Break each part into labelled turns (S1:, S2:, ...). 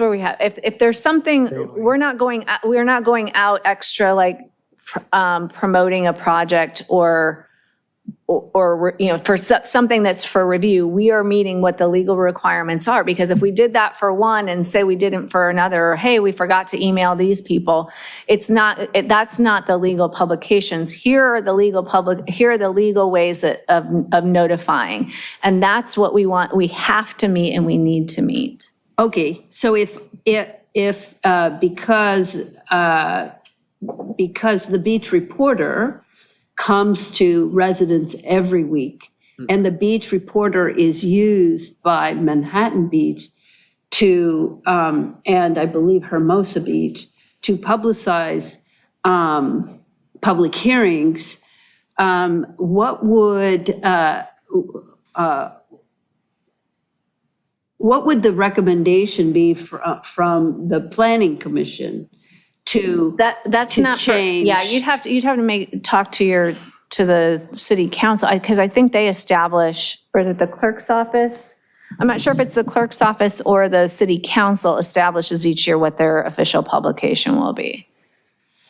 S1: where we have, if, if there's something, we're not going, out- we're not going out extra like pr- um, promoting a project or, or- or, you know, for so- something that's for review, we are meeting what the legal requirements are. Because if we did that for one and say we didn't for another, or hey, we forgot to email these people, it's not, it- that's not the legal publications. Here are the legal public, here are the legal ways that, of of notifying. And that's what we want, we have to meet and we need to meet.
S2: Okay, so if, if, if, uh, because, uh, because the beach reporter comes to residents every week, and the beach reporter is used by Manhattan Beach to, um, and I believe Hermosa Beach, to publicize, um, public hearings, um, what would, uh, What would the recommendation be fr- uh, from the planning commission to?
S1: That, that's
S2: to
S1: not for, yeah,
S2: change.
S1: you'd have to, you'd have to make, talk to your, to the city council, because I think they establish, or is it the clerk's office? I'm not sure if it's the clerk's office or the city council establishes each year what their official publication will be.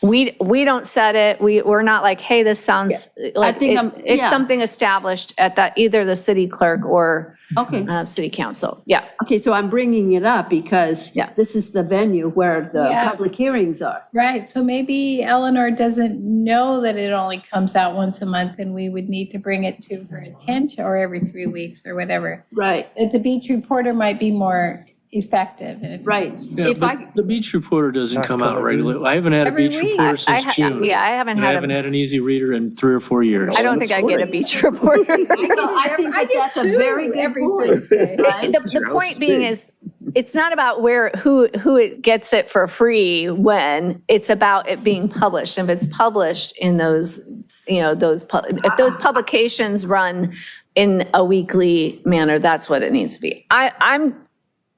S1: We, we don't set it, we, we're not like, hey, this sounds, like,
S2: think
S1: it-
S2: I'm-
S1: it's
S2: yeah.
S1: something established at that, either the city clerk or
S2: Okay,
S1: uh, city council, yeah.
S2: okay, so I'm bringing it up because
S1: Yeah.
S2: this is the venue where the
S3: Yeah.
S2: public hearings are.
S3: Right, so maybe Eleanor doesn't know that it only comes out once a month and we would need to bring it to her attention or every three weeks or whatever.
S2: Right.
S3: That the beach reporter might be more effective. and-
S2: Right.
S4: Yeah,
S2: If
S4: but
S2: I,
S4: The beach reporter doesn't come out regularly. I haven't had a
S3: Every
S4: beach
S3: week.
S4: reporter
S1: I
S4: since
S1: ha-
S4: June.
S1: Yeah, I haven't
S4: And I
S1: had,
S4: haven't
S1: a-
S4: had an easy reader in three or four years.
S1: I don't think I get a beach reporter.
S2: no, I think
S3: I
S2: that
S3: get
S2: that's a
S3: two
S2: very good
S3: every
S2: point.
S3: Thursday.
S2: right?
S1: The, the point being is, it's not about where, who, who it gets it for free when, it's about it being published. If it's published in those, you know, those, pu- if those publications run in a weekly manner, that's what it needs to be. I, I'm,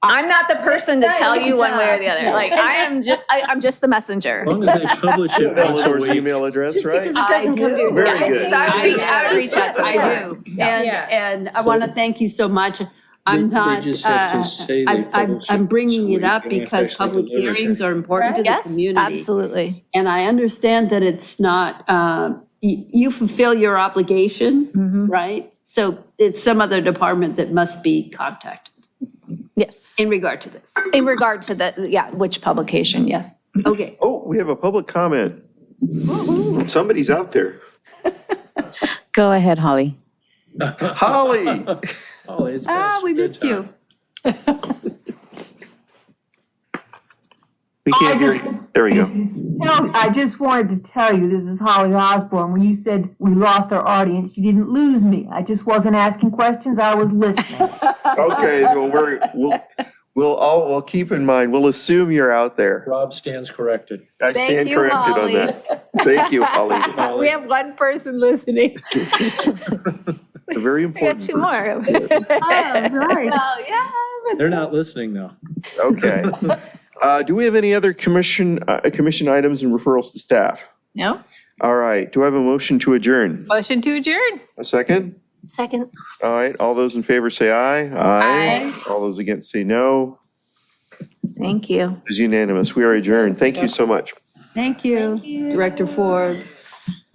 S1: I'm not the person to tell you one way or the other. Like, I am ju, I, I'm just the messenger.
S4: As long as they publish it once a
S5: Eleanor's
S4: week.
S5: email address, right?
S2: I do.
S5: Very Yeah, good.
S1: So I would reach, I would reach out to the
S2: I
S1: clerk.
S2: do. And,
S3: Yeah.
S2: and I want to thank you so much. I'm
S4: They- they
S2: not,
S4: just have to
S2: uh,
S4: say
S2: I'm,
S4: they
S2: I'm,
S4: publish it
S2: I'm bringing
S4: so
S2: it up
S4: we can
S2: because
S4: actually
S2: public
S4: deliver it.
S2: hearings are important to the
S1: Yes,
S2: community.
S1: absolutely.
S2: And I understand that it's not, uh, y- you fulfill your obligation, right? So it's some other department that must be contacted
S1: Yes.
S2: in regard to this.
S1: In regard to the, yeah, which publication, yes.
S2: Okay,
S5: Oh, we have a public comment. Somebody's out there.
S6: Go ahead, Holly.
S5: Holly,
S4: Oh, it's
S2: ah,
S4: past
S2: we missed you.
S4: bedtime.
S5: we can't hear you. There we go.
S7: No, I just wanted to tell you, this is Holly Osborne. When you said we lost our audience, you didn't lose me. I just wasn't asking questions. I was listening.
S5: Okay, well, we're, we'll, we'll all, we'll keep in mind, we'll assume you're out there.
S4: Rob stands corrected.
S5: I stand
S3: you,
S5: corrected on
S3: Holly.
S5: that. Thank you, Holly.
S3: We have one person listening.
S5: A Very
S1: I got
S5: important.
S1: two more.
S7: right.
S4: They're not listening though.
S5: Okay. Uh, do we have any other commission, uh, commission items and referrals to staff?
S3: No?
S5: All right, do I have a motion to adjourn?
S3: Motion to adjourn.
S5: A second?
S6: Second.
S5: All right, all those in favor say aye. Aye. All those against say no.
S1: Thank you.
S5: It's unanimous. We are adjourned. Thank you so much.
S2: Thank you, Director Forbes.